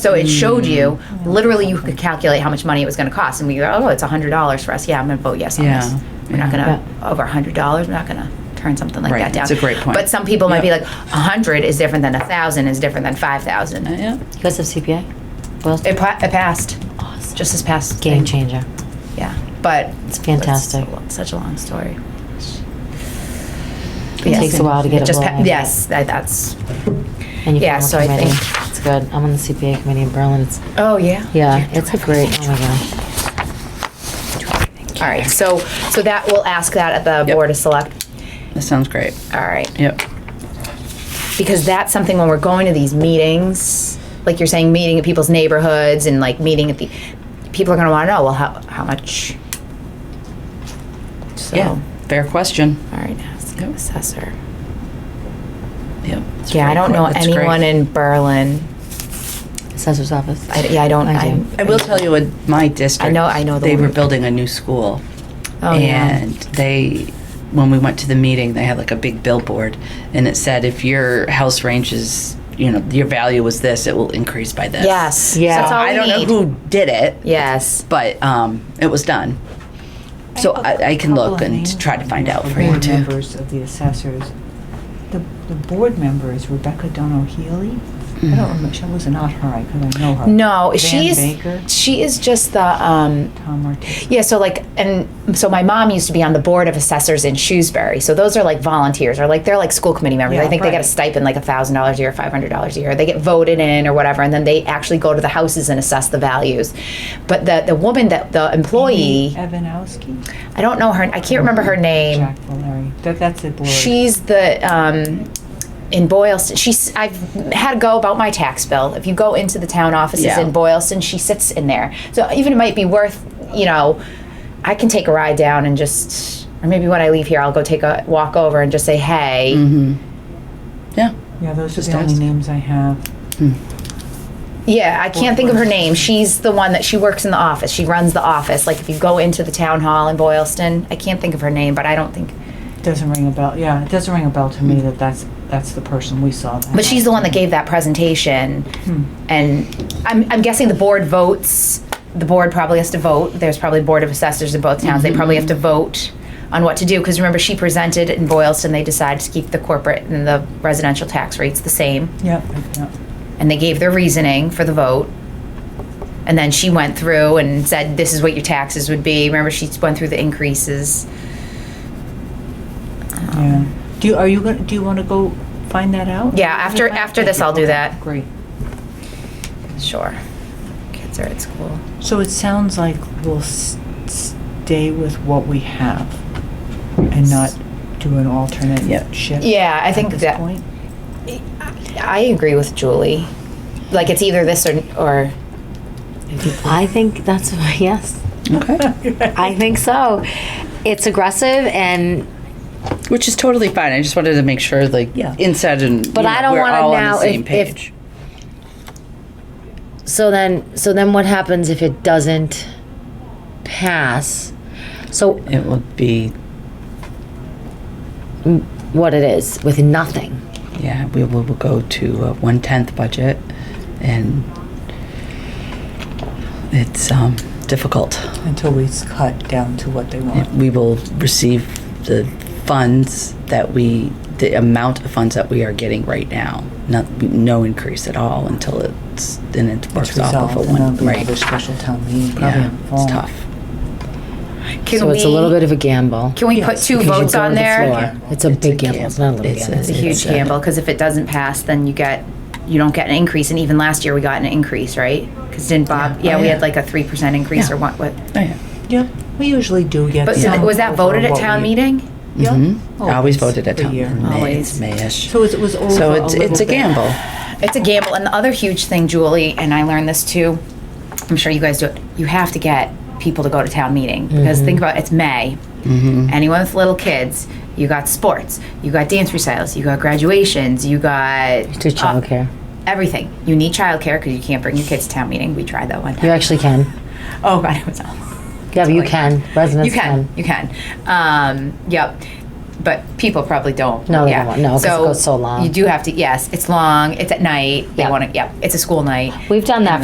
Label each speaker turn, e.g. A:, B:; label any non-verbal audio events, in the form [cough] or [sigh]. A: So it showed you,
B: Mm.
A: literally, you could calculate how much money it was going to cost. And we go, oh, it's $100 for us. Yeah, I'm going to vote yes on
C: Yeah,
A: this. We're not
C: yeah.
A: going to, over $100, we're not going to turn something like
C: Right,
A: that down.
C: it's a great point.
A: But some people might be
C: Yep.
A: like, 100 is different than 1,000 is different than 5,000. It,
C: Yeah.
B: You guys have CPA? Well,
A: pa- it passed,
B: awesome.
A: just this past. thing.
B: game changer.
A: Yeah, but.
B: It's fantastic.
A: it's a lo- Such a long story.
B: It takes a while to get it
A: just pa-
B: rolling.
A: Yes, that- that's,
B: And you
A: Yeah,
B: form a
A: so I
B: committee.
A: think-
B: it's good. I'm on the CPA committee in Berlin. It's
A: oh, yeah.
B: yeah, it's a great. Oh my god.
A: All right, so, so that, we'll ask that at the
C: Yep.
A: Board of Select.
C: That sounds great.
A: All right.
C: Yep.
A: because that's something when we're going to these meetings, like you're saying, meeting at people's neighborhoods and like meeting at the, people are going to want to know, well, how, how much? So,
C: Yeah. Fair question.
A: All right, ask
C: Yep.
A: assessor.
C: Yep. It's
A: Yeah, I
C: very
A: don't know
C: quick. It's great.
A: anyone in Berlin.
B: Assessor's office.
A: I, yeah, I don't.
B: I do.
A: I'm-
C: I will tell you in my district.
A: I know- I know the
C: They
A: one.
C: were building a new school.
A: Oh, yeah.
C: and they, when we went to the meeting, they had like a big billboard, and it said, "If your house range is, you know, your value was this, it will increase by this."
A: Yes.
B: Yeah.
A: That's all
C: I
A: we
C: don't
A: need.
C: know who did it,
A: Yes.
C: but um, it was done. So I, I can look and try to find out for you
D: board
C: too.
D: members of the assessors. The, the board member is Rebecca Dono Healy. I don't remember, she was not her, I could I know her.
A: Mm. No,
D: Van
A: she's
D: Baker,
A: she is just the um,
D: Tom Ortiz.
A: Yeah, so like, and so my mom used to be on the board of assessors in Shrewsbury. So those are like volunteers, or like they're like school committee members.
D: Yeah,
A: I think they get
D: right.
A: a stipend like thousand dollars a year, five hundred dollars a year. They get voted in or whatever, and then they actually go to the houses and assess the values. But the the woman that the employee,
D: Evanowski?
A: I don't know her. I can't remember her name.
D: Jack Valeri. That, that's the board.
A: She's the um, in Boylston. She's I've had a go about my tax bill. If you go into the town offices
C: Yeah.
A: in Boylston, she sits in there. So even it might be worth, you know, I can take a ride down and just, or maybe when I leave here, I'll go take a walk over and just say, hey.
C: Mm. Mm-hmm. Yeah.
D: Yeah, those are
C: Just
D: the only
C: ask.
D: names I have.
A: Yeah, I can't think of her name. She's the one that she works in the office. She runs the office. Like if you go into the town hall in Boylston, I can't think of her name, but I don't think.
D: Doesn't ring a bell, yeah, it doesn't ring a bell to me that that's, that's the person we saw. Hmm, that
A: Mm. But she's the one that gave that presentation, and I'm, I'm guessing the board votes. The board probably has to vote. There's probably board of assessors in both towns. They probably have to vote on what to do because remember she presented in Boylston. They decided to keep the corporate and the residential tax rates the same,
D: Yep,
A: Um.
D: yep.
A: and they gave their reasoning for the vote. And then she went through and said, "This is what your taxes would be." Remember, she went through the increases. Um,
D: Yeah. Do you, are you gonna, do you wanna go find that out?
A: Yeah, after- after this, I'll do
D: Okay,
A: that.
D: Great.
A: Sure, kids are at school.
D: So it sounds like we'll s- stay with what we have and not do an alternate
C: Yep.
D: shift.
A: Yeah, I
D: at
A: think
D: this
A: that-
D: point.
A: I agree with Julie. Like it's either this or or
B: I think that's [laughs] yes.
C: Okay.
B: I think so. It's aggressive and
C: Which is totally fine. I just wanted to make sure, like,
D: Yeah.
C: inside and
B: But
C: you
B: I
C: know,
B: don't
C: we're
B: wanna
C: all on
B: now
C: the
B: if-
C: same
B: if-
C: page.
B: So then, so then what happens if it doesn't pass? So
C: It would be,
B: what it is with nothing.
C: yeah, we will will go to a one tenth budget, and it's um, difficult.
D: Until we s- cut down to what they want.
C: We will receive the funds that we, the amount of funds that we are getting right now. Not no increase at all until it's then it
D: It's
C: works off of
D: resolved
C: a
D: and there'll
C: one
D: be
C: right.
D: another special town meeting probably
C: Yeah,
D: in the fall.
C: it's tough.
A: can
B: so
A: we,
B: it's a little bit of a gamble.
A: Can we put
D: Yes,
A: two
B: Because you
A: votes
B: go to
A: on
B: the
A: there?
B: floor. It's a
C: It's a
B: big gamble. It's not a little
C: gamble.
B: gamble.
C: It's
A: It's a huge gamble because if it doesn't pass, then you get you don't get an increase. And even last year we got an increase, right? Because didn't Bob? Yeah,
C: Yeah. Oh,
A: we
C: yeah.
A: had like a three percent increase
C: Yeah.
A: or what? what
C: Oh, yeah.
D: Yeah, we usually do get
A: but so
D: some
A: th- was that
D: over
A: voted at
D: what
A: town
D: we-
A: meeting?
D: Yeah.
C: Mm-hmm. Always voted at
D: Oh, every
C: town.
D: year.
C: in May.
A: Always.
C: It's Mayish.
D: So it was over
C: So
D: a
C: it's,
D: little
C: it's a
D: bit.
C: gamble.
A: It's a gamble. And the other huge thing, Julie, and I learned this too. I'm sure you guys do it. You have to get people to go to town meeting because think about it, it's May. Anyone with little kids, you got sports, you got dance recitals, you got graduations, you got
B: To childcare,
A: everything. You need childcare because you can't bring your kids to town meeting. We tried that one
B: you
A: time.
B: actually can.
A: Oh God, it was awful.
B: Yeah, but you
A: like-
B: can. Residents
A: You can, you can. Um, yep. but people probably don't.
B: No, they
A: yeah.
B: don't want- no, 'cause it
A: So
B: goes so long.
A: You do have to, yes, it's long, it's at night, they
B: Yep.
A: want to, yep, it's a school night.
B: We've done that